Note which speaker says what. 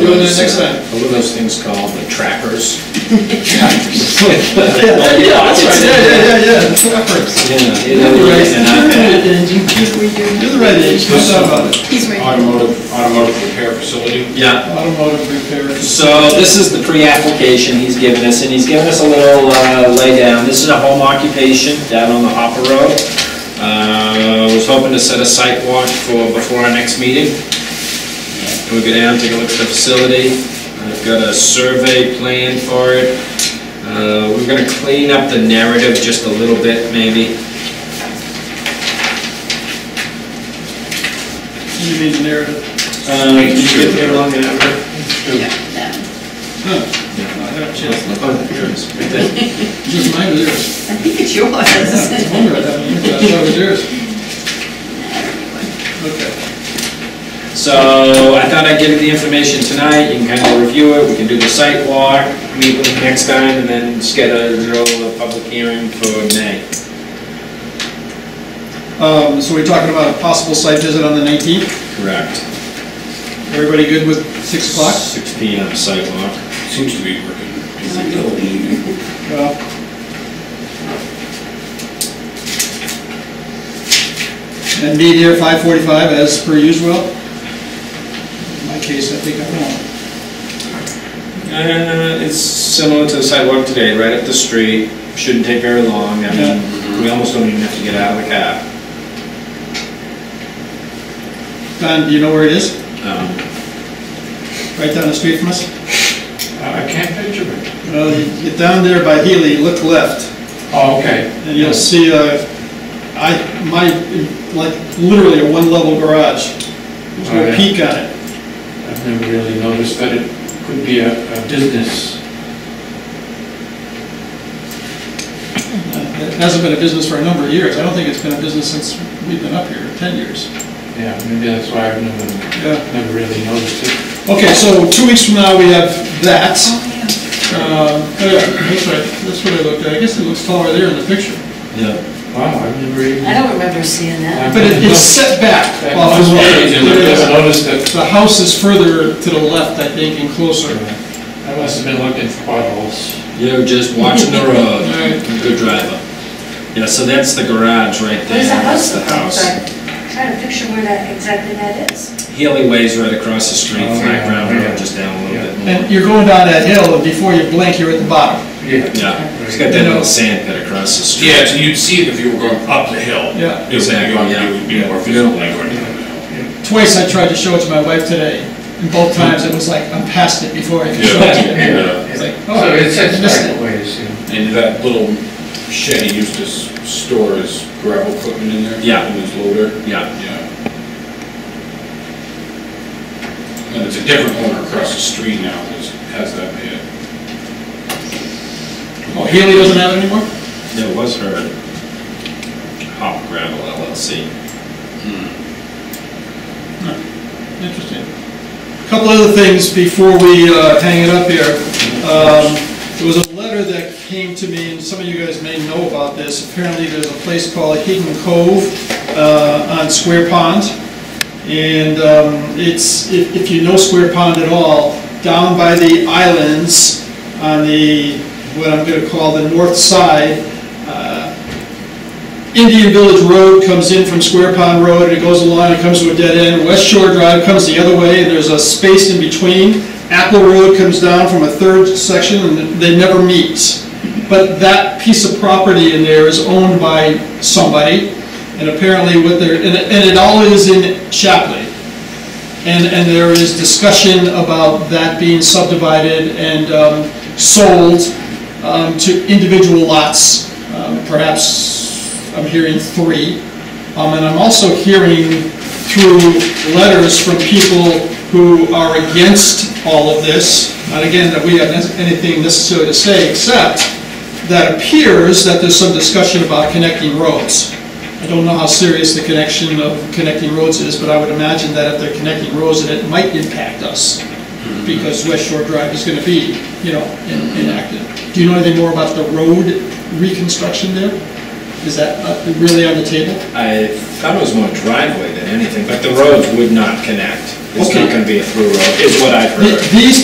Speaker 1: those,
Speaker 2: next time.
Speaker 1: what are those things called, the trackers?
Speaker 2: Yeah, that's right, yeah, yeah, yeah, yeah. Trappers.
Speaker 1: You know, you
Speaker 2: You're
Speaker 1: know,
Speaker 2: the right
Speaker 1: and I've had-
Speaker 2: age, you're the right age, no doubt about it.
Speaker 3: He's right.
Speaker 4: Automotive, automotive repair facility.
Speaker 1: Yeah,
Speaker 2: Automotive repairers.
Speaker 1: So this is the pre-application he's given us, and he's given us a little uh, laydown. This is a home occupation down on the Hopper Road. Uh, Was hoping to set a site walk for, before our next meeting. And we go down, take a look at the facility. I've got a survey plan for it. Uh, We're gonna clean up the narrative just a little bit, maybe.
Speaker 2: You need a narrative.
Speaker 1: Um,
Speaker 2: Get there long enough.
Speaker 3: Yeah, that.
Speaker 2: I had a chance.
Speaker 1: Oh,
Speaker 2: Just mine was yours.
Speaker 3: I think it's
Speaker 2: I
Speaker 3: yours.
Speaker 2: wonder, I thought it was yours. Okay.
Speaker 1: So I thought I'd give you the information tonight, you can kind of review it, we can do the site walk, meet with them next time, and then schedule a public hearing for May.
Speaker 2: Um, so we're talking about a possible site visit on the nineteenth.
Speaker 1: Correct.
Speaker 2: Everybody good with six o'clock?
Speaker 1: Six P M site walk.
Speaker 4: Seems to be working.
Speaker 2: Well, And meet here five forty-five as per usual. In my case, I think I'm wrong.
Speaker 1: Uh, it's similar to the site walk today, right up the street, shouldn't take very long, I mean, we almost don't even have to get out of the cab.
Speaker 2: Don, do you know where it is?
Speaker 1: Um,
Speaker 2: Right down the street from us?
Speaker 4: Uh, I can't picture it.
Speaker 2: Well, you get down there by Healy, look left,
Speaker 4: Oh, okay.
Speaker 2: and you'll see, uh, I, my, like, literally a one-level garage. There's
Speaker 4: Oh,
Speaker 2: no
Speaker 4: yeah.
Speaker 2: peak on it.
Speaker 4: I've never really noticed that it could be a a business.
Speaker 2: Uh, It hasn't been a business for a number of years. I don't think it's been a business since we've been up here, ten years.
Speaker 4: Yeah, maybe that's why I've never,
Speaker 2: Yeah.
Speaker 4: never really noticed it.
Speaker 2: Okay, so two weeks from now, we have that.
Speaker 3: Oh,
Speaker 2: Um, oh yeah, that's right, that's what I looked at. I guess it looks taller there in the picture.
Speaker 1: yeah.
Speaker 4: Wow, I've never even.
Speaker 3: yeah. I don't remember seeing that.
Speaker 2: But it- it's set back
Speaker 4: That
Speaker 2: off
Speaker 4: must
Speaker 2: the
Speaker 4: be- I've
Speaker 2: road.
Speaker 4: never noticed that.
Speaker 2: The house is further to the left, I think, and closer.
Speaker 4: I must have been looking for potholes.
Speaker 1: You're just watching the road,
Speaker 2: Alright.
Speaker 1: good driver. Yeah, so that's the garage right there.
Speaker 5: There's a house
Speaker 1: That's the house.
Speaker 5: there, but trying to picture where that, exactly that is.
Speaker 1: Healy Way's right across the street,
Speaker 4: Oh,
Speaker 1: flat
Speaker 4: yeah,
Speaker 1: ground road,
Speaker 4: yeah.
Speaker 1: just down a little bit
Speaker 2: And
Speaker 1: more.
Speaker 2: you're going down that hill, and before you blink, you're at the bottom.
Speaker 4: Yeah.
Speaker 1: Yeah, it's got that little sand pit across the street.
Speaker 6: Yeah, so you'd see it if you were going up the hill.
Speaker 2: Yeah.
Speaker 6: It would be on- It would be more visible like going down the hill.
Speaker 2: Twice I tried to show it to my wife today, and both times it was like, I'm past it before I can show it to her.
Speaker 6: Yeah,
Speaker 2: It's like, oh,
Speaker 4: So
Speaker 2: I
Speaker 4: it's, it's
Speaker 2: missed it.
Speaker 4: back ways, yeah.
Speaker 6: uh, And that little shed he used to s- store his gravel equipment in there?
Speaker 1: Yeah.
Speaker 6: In his loader?
Speaker 1: Yeah,
Speaker 6: Yeah. And it's a different owner across the street now that has that pit.
Speaker 2: Oh, Healy doesn't have it anymore?
Speaker 1: it was her Hop Gravel LLC.
Speaker 2: Interesting. Couple other things before we uh, hang it up here. Um, There was a letter that came to me, and some of you guys may know about this. Apparently, there's a place called Hidden Cove uh, on Square Pond. And um, it's, if if you know Square Pond at all, down by the islands on the, what I'm going to call the north side, uh, Indian Village Road comes in from Square Pond Road, and it goes along and comes to a dead end. West Shore Drive comes the other way, and there's a space in between. Apple Road comes down from a third section, and they never meet. But that piece of property in there is owned by somebody, and apparently what they're, and it- and it all is in Shapley. And, and there is discussion about that being subdivided and um, sold um, to individual lots, um, perhaps, I'm hearing three. Um, And I'm also hearing through letters from people who are against all of this, not again, that we have anything necessarily to say, except that appears that there's some discussion about connecting roads. I don't know how serious the connection of connecting roads is, but I would imagine that if they're connecting roads, that it might impact us, because West Shore Drive is gonna be, you know, in- inactive. Do you know anything more about the road reconstruction there? Is that uh, really on the table?
Speaker 1: I thought it was more driveway than anything, but the roads would not connect. It's
Speaker 2: Okay.
Speaker 1: not gonna be a through road, is what I've
Speaker 2: The-
Speaker 1: heard.
Speaker 2: These